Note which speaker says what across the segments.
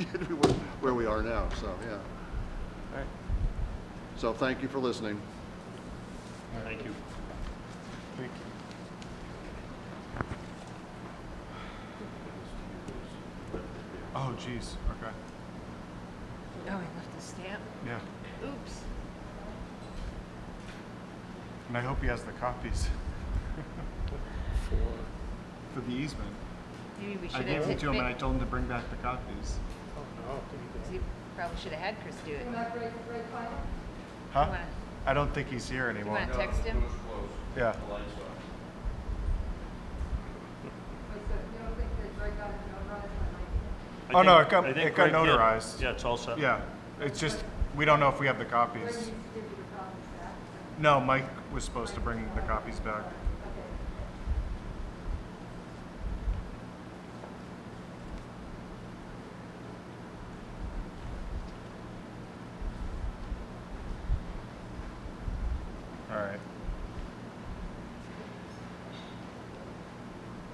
Speaker 1: where- where we are now, so, yeah.
Speaker 2: All right.
Speaker 1: So thank you for listening.
Speaker 2: Thank you. Thank you.
Speaker 3: Oh, jeez. Okay.
Speaker 4: Oh, I left the stamp.
Speaker 3: Yeah.
Speaker 4: Oops.
Speaker 3: And I hope he has the copies
Speaker 2: For,
Speaker 3: for the easement.
Speaker 4: Maybe we should
Speaker 3: I
Speaker 4: have.
Speaker 3: gave them to him and I
Speaker 4: maybe-
Speaker 3: told him to bring back the copies.
Speaker 2: oh no, did he
Speaker 4: You Probably should have had Chris do it. You
Speaker 3: Huh?
Speaker 4: wanna-
Speaker 3: I don't think he's here anymore.
Speaker 4: want to text him?
Speaker 3: Yeah.
Speaker 2: go?
Speaker 3: Oh,
Speaker 2: I
Speaker 3: no,
Speaker 2: think-
Speaker 3: it got-
Speaker 2: I think
Speaker 3: it got
Speaker 2: Greg did.
Speaker 3: notarized.
Speaker 2: Yeah, it's all set.
Speaker 3: Yeah. It's just we don't know if we have the copies. No, Mike was supposed to bring the copies back. All right.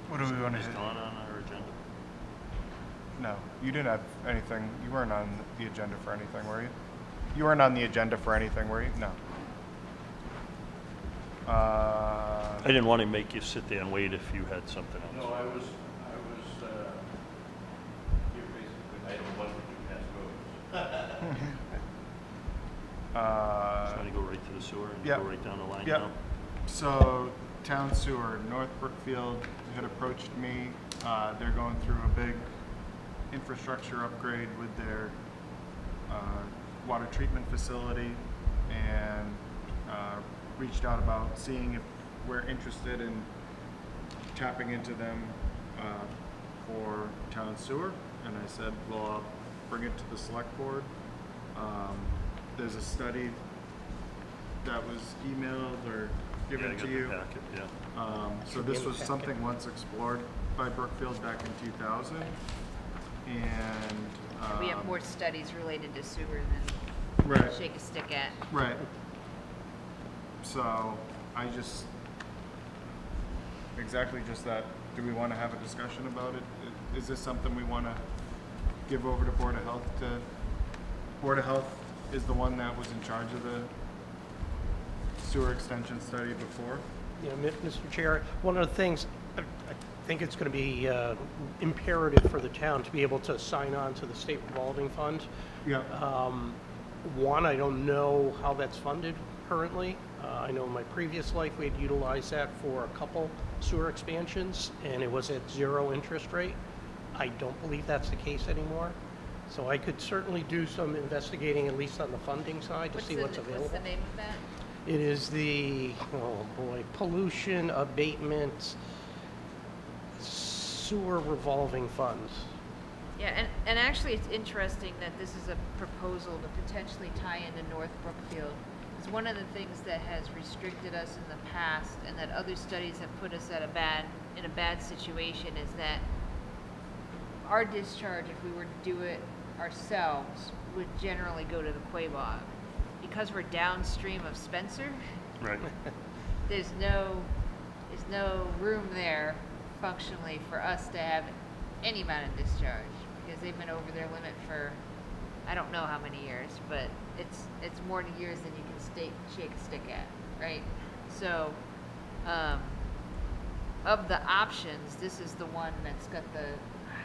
Speaker 3: What do we want to
Speaker 2: Is
Speaker 3: hit?
Speaker 2: Dawn on our agenda?
Speaker 3: No, you didn't have anything. You weren't on the agenda for anything, were you? You weren't on the agenda for anything, were you? No.
Speaker 2: I
Speaker 3: Uh,
Speaker 2: didn't want to make you sit there and wait if you had something
Speaker 5: No,
Speaker 2: else.
Speaker 5: I was, I was, uh, you're basically, I don't want to do that road.
Speaker 2: Just
Speaker 3: uh,
Speaker 2: want to go right to the sewer and
Speaker 3: yeah.
Speaker 2: go right down the line
Speaker 3: Yeah.
Speaker 2: now.
Speaker 3: so town sewer, North Brookfield had approached me. Uh, they're going through a big infrastructure upgrade with their uh, water treatment facility and uh, reached out about seeing if we're interested in tapping into them uh, for town sewer. And I said, well, I'll bring it to the select board. Um, There's a study that was emailed or
Speaker 2: Yeah, I
Speaker 3: given
Speaker 2: got
Speaker 3: to
Speaker 2: the
Speaker 3: you.
Speaker 2: packet, Yeah,
Speaker 3: Um, so this was something once explored by Brookfield back in 2000. And.
Speaker 4: We have
Speaker 3: um,
Speaker 4: more studies related to sewer than
Speaker 3: Right.
Speaker 4: shake a stick at.
Speaker 3: Right. So I just, exactly just that, do we want to have a discussion about it? I- Is this something we want to give over to Board of Health to, Board of Health is the one that was in charge of the sewer extension study before?
Speaker 6: You know, Mi- Mr. Chair, one of the things, I I think it's going to be uh, imperative for the town to be able to sign on to the state revolving fund.
Speaker 3: Yeah.
Speaker 6: Um, One, I don't know how that's funded currently. Uh, I know in my previous life, we had utilized that for a couple sewer expansions, and it was at zero interest rate. I don't believe that's the case anymore. So I could certainly do some investigating, at least on the funding side, to
Speaker 4: What's
Speaker 6: see
Speaker 4: the,
Speaker 6: what's
Speaker 4: what's
Speaker 6: available.
Speaker 4: the name of that?
Speaker 6: It is the, oh boy, pollution abatement sewer revolving funds.
Speaker 4: Yeah, and, and actually, it's interesting that this is a proposal to potentially tie into North Brookfield. It's one of the things that has restricted us in the past, and that other studies have put us at a bad, in a bad situation, is that our discharge, if we were to do it ourselves, would generally go to the Quabog. Because we're downstream of Spencer,
Speaker 2: right.
Speaker 4: there's no, there's no room there functionally for us to have any amount of discharge because they've been over their limit for, I don't know how many years, but it's, it's more than years than you can state, shake a stick at, right? So, um, of the options, this is the one that's got the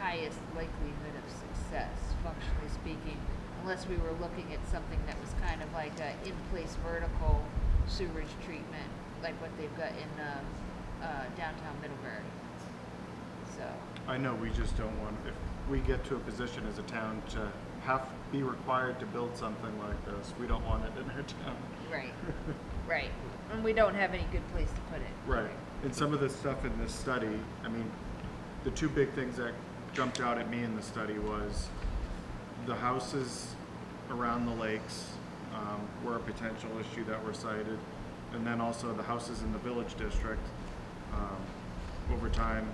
Speaker 4: highest likelihood of success, functionally speaking, unless we were looking at something that was kind of like a in-place vertical sewage treatment, like what they've got in um, uh, downtown Middlebury. So,
Speaker 3: I know we just don't want, if we get to a position as a town to have, be required to build something like this, we don't want it in our town.
Speaker 4: right, right. And we don't have any good place to put it.
Speaker 3: Right. And some of the stuff in this study, I mean, the two big things that jumped out at me in the study was the houses around the lakes um, were a potential issue that were cited. And then also the houses in the village district, um, over time,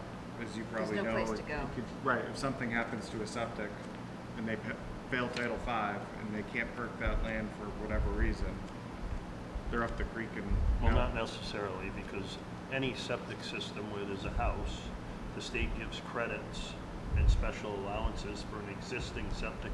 Speaker 3: as you probably know.
Speaker 4: no place to
Speaker 3: it-
Speaker 4: go.
Speaker 3: it could- Right, if something happens to a septic and they pa- fail Title V and they can't perk that land for whatever reason, they're up the creek and.
Speaker 2: Well,
Speaker 3: out.
Speaker 2: not necessarily, because any septic system where there's a house, the state gives credits and special allowances for an existing septic